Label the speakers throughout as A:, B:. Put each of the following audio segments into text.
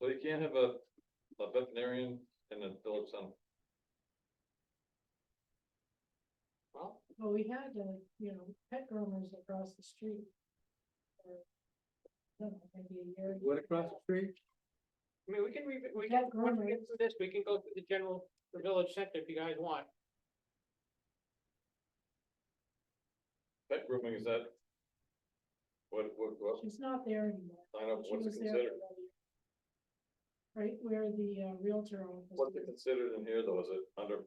A: we can't have a, a veterinarian in the village center.
B: Well,
C: Well, we had, uh, you know, pet groomers across the street. for, I don't know, Maybe a year.
D: What across the street?
B: I mean, we can, re- we
C: Yeah,
B: can, once we
C: groomers.
B: get through this, we can go through the general, the village center if you guys want.
A: Pet grooming is that? What, what, what,
C: She's not there anymore.
A: I don't
B: Oh,
A: know,
C: She
A: what's it
C: was there
A: considered?
C: for the- Right where the uh, Realtor office.
A: What's it
C: is.
A: considered in here though? Is it under,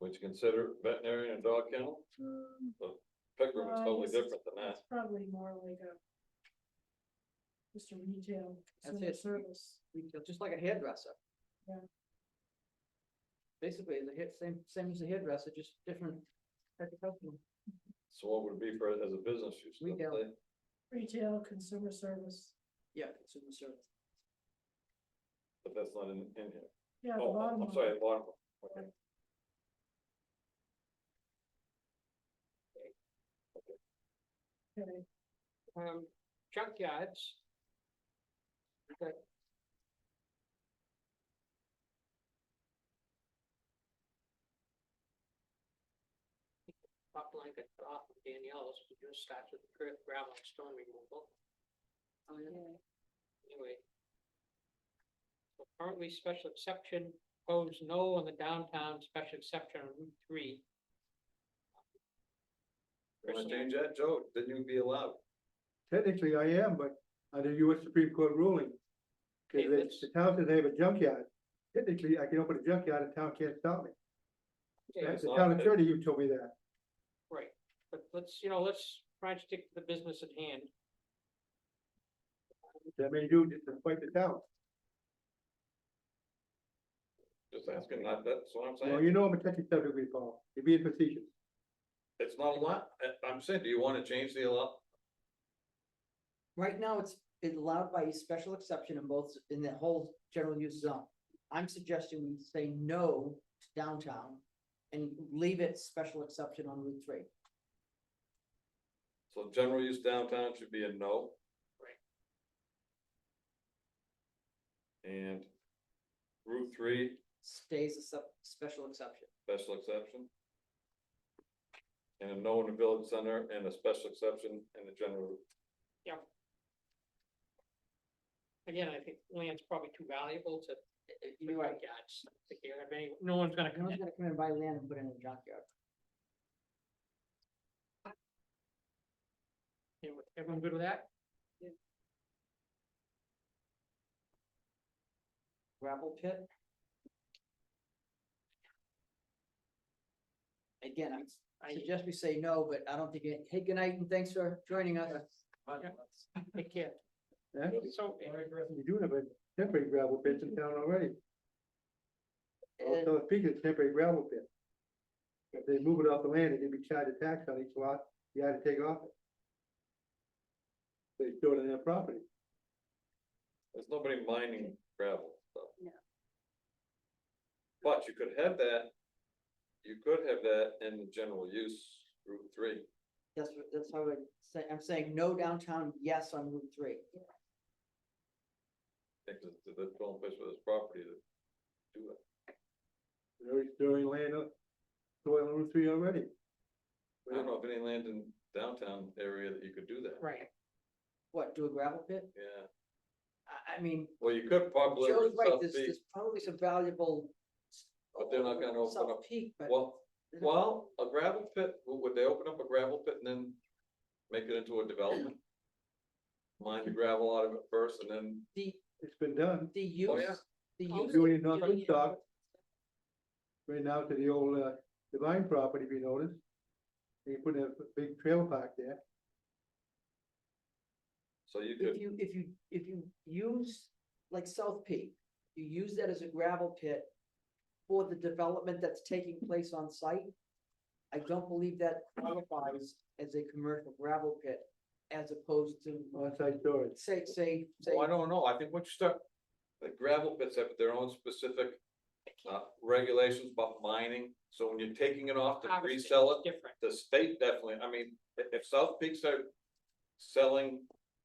A: would you consider veterinarian and dog kennel?
C: Mm,
A: Pet grooming is
C: Uh,
A: totally
C: yes.
A: different than that.
C: It's probably more like a. Just a retail
E: That's
C: consumer
E: it.
C: service.
E: retail, just like a hairdresser.
C: Yeah.
E: Basically, the hair, same, same as a hairdresser, just different type of customer.
A: So what would it be for, as a business use?
E: We
A: don't
E: don't.
A: they?
C: Retail consumer service.
E: Yeah, consumer service.
A: But that's not in, in here.
C: Yeah, the
A: Oh, I'm-
C: bottom line.
A: I'm sorry, bottom. Okay.
C: Okay,
B: Um, junkyards. Okay. Top line got off of Danielle's, we just starts with gra- gravel and stone removal.
E: Oh, yeah.
B: Anyway. So Currently, special exception goes no on the downtown special exception on Route three.
A: Wanna change that, Joe? Then you'd be allowed.
D: Technically, I am, but under US Supreme Court ruling. Cause
B: Okay,
D: the-
B: let's-
D: the town says they have a junkyard. Technically, I can open a junkyard and town can't stop me.
B: Yeah,
A: Yes.
D: The town attorney, you told me that.
B: Right, but let's, you know, let's try and stick to the business at hand.
D: That may do just to fight the town.
A: Just asking, that, that's what I'm
D: Well,
A: saying.
D: you know I'm a touchy subject, we Paul. You're being facetious.
A: It's not a lot. I- I'm saying, do you wanna change the allow?
E: Right now, it's it's allowed by a special exception in both, in the whole general use zone. I'm suggesting we say no to downtown and leave it special exception on Route three.
A: So general use downtown should be a no.
B: Right.
A: And Route three,
E: Stays a sub, special exception.
A: special exception. And a no in the village center and a special exception in the general.
B: Again, I think land's probably too valuable to.
E: You're right.
B: Junkyards, I think you're gonna have any- no one's gonna
E: No
B: come
E: one's
B: in.
E: gonna come and buy land and put it in a junkyard.
B: You know, Everyone good with that?
E: gravel pit. Again, I'm- I suggest we say no, but I don't think, it- hey, good night and thanks for joining us.
B: Take care.
D: Actually,
B: So,
D: the only person You do have a temporary gravel pit in town already.
E: And
D: Also, speaking of temporary gravel pit. If they move it off the land, it'd be charged a tax on each lot, you had to take off it. They store it on their property.
A: There's nobody mining gravel, so.
E: No.
A: But you could have that, you could have that in the general use Route three.
E: That's, what- that's how I would say, I'm saying no downtown, yes on Route three.
A: Because the, the only place with this property to do it.
D: They're already storing land up, soil on Route three already.
A: I don't know of any land in downtown area that you could do that.
B: right,
E: What, do a gravel pit?
A: Yeah,
E: I, I mean,
A: well, you could probably,
E: Joe's right,
A: South
E: there's,
A: Beach,
E: there's probably some valuable.
A: But they're not gonna open
E: South
A: up-
E: Peak, but.
A: well, well, a gravel pit, w- would they open up a gravel pit and then make it into a development? Mine the gravel out of it first and then,
E: The,
D: It's been done,
E: the use,
A: yeah.
E: the
B: Oh,
E: use.
D: doing it in North Woodstock. Right now to the old, uh, Divine property, if you notice. They put a big trailer park there.
A: so you could,
E: If you, if you, if you use, like South Peak, you use that as a gravel pit for the development that's taking place on site, I don't believe that qualifies as a commercial gravel pit as opposed to,
D: on-site storage.
E: say, say, say,
A: well, oh, I don't know, I think once you start, the gravel pits have their own specific uh, regulations about mining, so when you're taking it off to
B: Harvesting.
A: resell it,
B: different.
A: the state definitely, I mean, i- if South Peaks are selling